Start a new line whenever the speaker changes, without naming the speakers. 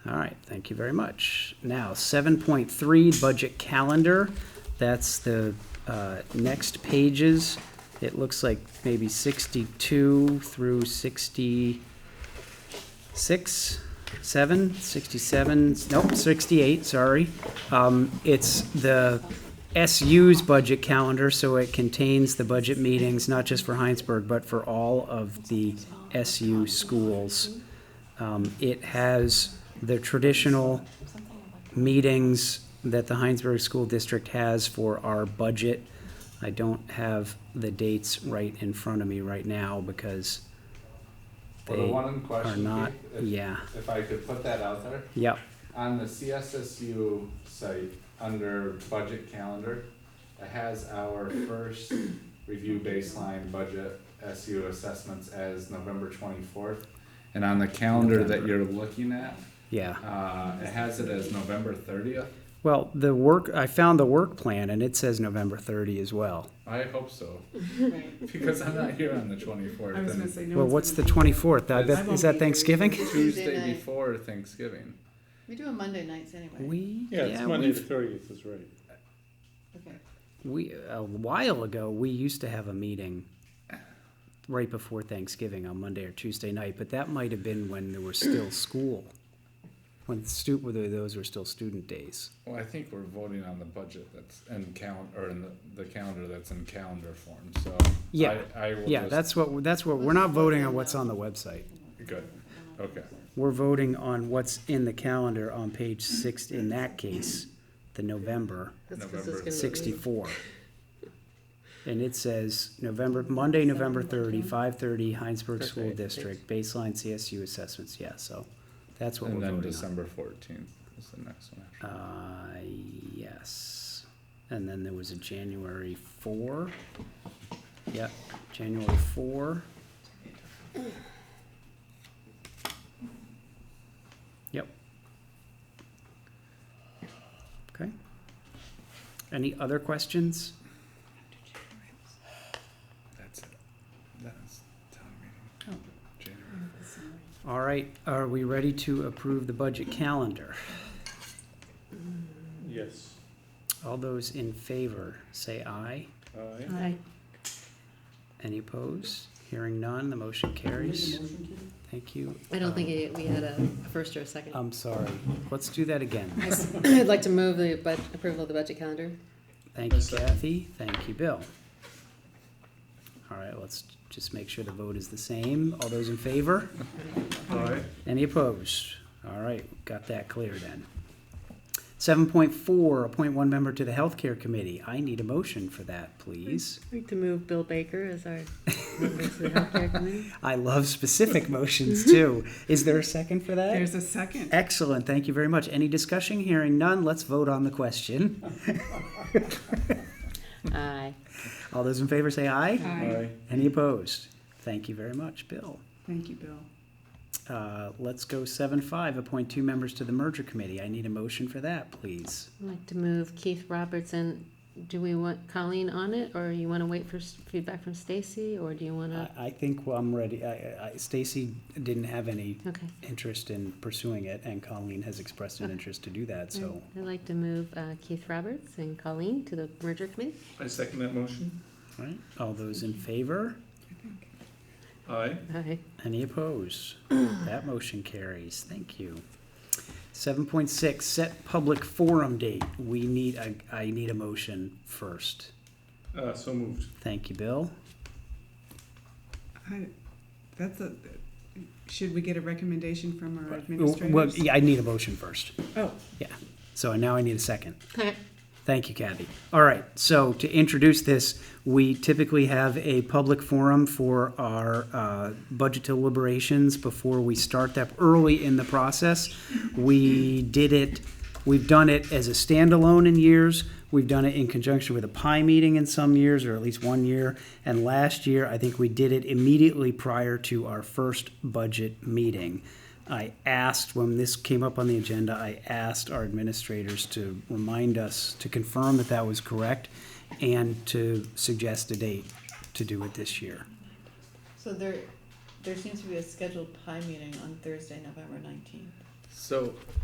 Thank you very much. Now, seven point three, budget calendar. That's the uh, next pages. It looks like maybe sixty-two through sixty-six, seven, sixty-seven, nope, sixty-eight, sorry. Um, It's the SU's budget calendar, so it contains the budget meetings, not just for Heinsberg, but for all of the SU schools. Um, It has the traditional meetings that the Heinsberg School District has for our budget. I don't have the dates right in front of me right now because
Well, the
They
one in
are
question,
not,
Keith,
e-
if,
yeah,
if I could put that out there,
yep,
on the CSSU site, under budget calendar, it has our first review baseline budget SU assessments as November twenty-fourth. And on the calendar that you're looking at,
yeah.
uh, it has it as November thirtieth.
Well, the work, I found the work plan and it says November thirty as well.
I hope so,
Right.
because I'm not here on the twenty-fourth.
I was gonna say no.
Well,
one's
what's the
gonna-
twenty-fourth? I bet,
won't
is
be
that
here.
Thanksgiving?
Tuesday
Tuesday
night.
before Thanksgiving.
We do on Monday nights anyway.
We,
Yeah, it's
yeah,
Monday the
we've,
thirtieth is right.
Okay.
we, a while ago, we used to have a meeting right before Thanksgiving on Monday or Tuesday night, but that might have been when there was still school. When stu, whether those were still student days.
Well, I think we're voting on the budget that's in count, or in the, the calendar that's in calendar form, so.
Yeah,
I, I will
Yeah,
just.
that's what, that's what, we're not voting on what's on the website.
Good, okay.
We're voting on what's in the calendar on page six, in that case, the November.
That's 'cause
November
it's gonna be-
64. And it says, November, Monday, November 30, 5:30, Heinsberg School
Perfect.
District, baseline CSU assessments, yeah, so that's what
And
we're
then
voting on.
December fourteenth is the next one. after.
Uh, yes, and then there was a January 4. Yep, January 4. Yep. Okay. Any other questions?
That's it. That's town
Oh.
meeting. January.
All right, are we ready to approve the budget calendar?
Yes.
All those in favor, say aye.
Aye.
Aye.
Any opposed? Hearing none, the motion carries. Thank you.
I don't think
Um,
it- we had a first or a second.
I'm sorry. Let's do that again.
I'd like to move the bud approval of the budget calendar.
Thank you, Kathy. Thank you, Bill. All right, let's just make sure the vote is the same. All those in favor?
Aye.
Any opposed? All right, got that clear then. Seven point four, appoint one member to the Healthcare Committee. I need a motion for that, please.
I'd like to move Bill Baker as our member to the healthcare committee.
I love specific motions too. Is there a second for that?
There's a second.
Excellent, thank you very much. Any discussion? Hearing none, let's vote on the question.
Aye.
All those in favor say aye.
Aye.
Any opposed? Thank you very much, Bill.
Thank you, Bill.
Uh, Let's go seven five, appoint two members to the merger committee. I need a motion for that, please.
I'd like to move Keith Robertson. Do we want Colleen on it, or you want to wait for s- feedback from Stacy, or do you want
I
to?
I think I'm ready. I- I- Stacy didn't have any
Okay.
interest in pursuing it, and Colleen has expressed an interest to do that, so.
I'd like to move uh, Keith Roberts and Colleen to the merger committee.
I second that motion.
All right. All those in favor?
I think.
Aye.
Aye.
Any opposed? That motion carries. Thank you. Seven point six, set public forum date. We need, I, I need a motion first.
Uh, so moved.
Thank you, Bill.
I, that's a, should we get a recommendation from our
Well,
administrators?
yeah, I need a motion first.
Oh,
So now I need a second. Thank you, Kathy. All right, so to introduce this, we typically have a public forum for our uh, budget deliberations before we start that early in the process. We did it, we've done it as a standalone in years. We've done it in conjunction with a PI meeting in some years, or at least one year. And last year, I think we did it immediately prior to our first budget meeting. I asked, when this came up on the agenda, I asked our administrators to remind us, to confirm that that was correct, and to suggest a date to do it this year.
so there, there seems to be a scheduled pie meeting on Thursday, November nineteenth.
So